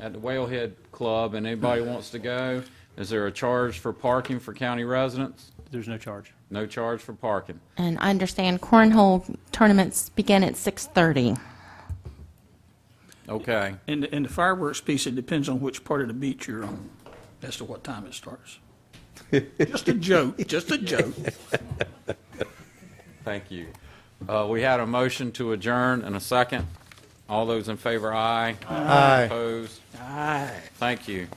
at the Whalehead Club and anybody wants to go, is there a charge for parking for county residents? There's no charge. No charge for parking. And I understand cornhole tournaments begin at 6:30. Okay. And, and the fireworks piece, it depends on which part of the beach you're on as to what time it starts. Just a joke, just a joke. Thank you. Uh, We had a motion to adjourn and a second. All those in favor, aye. Aye. Opposed? Aye. Thank you.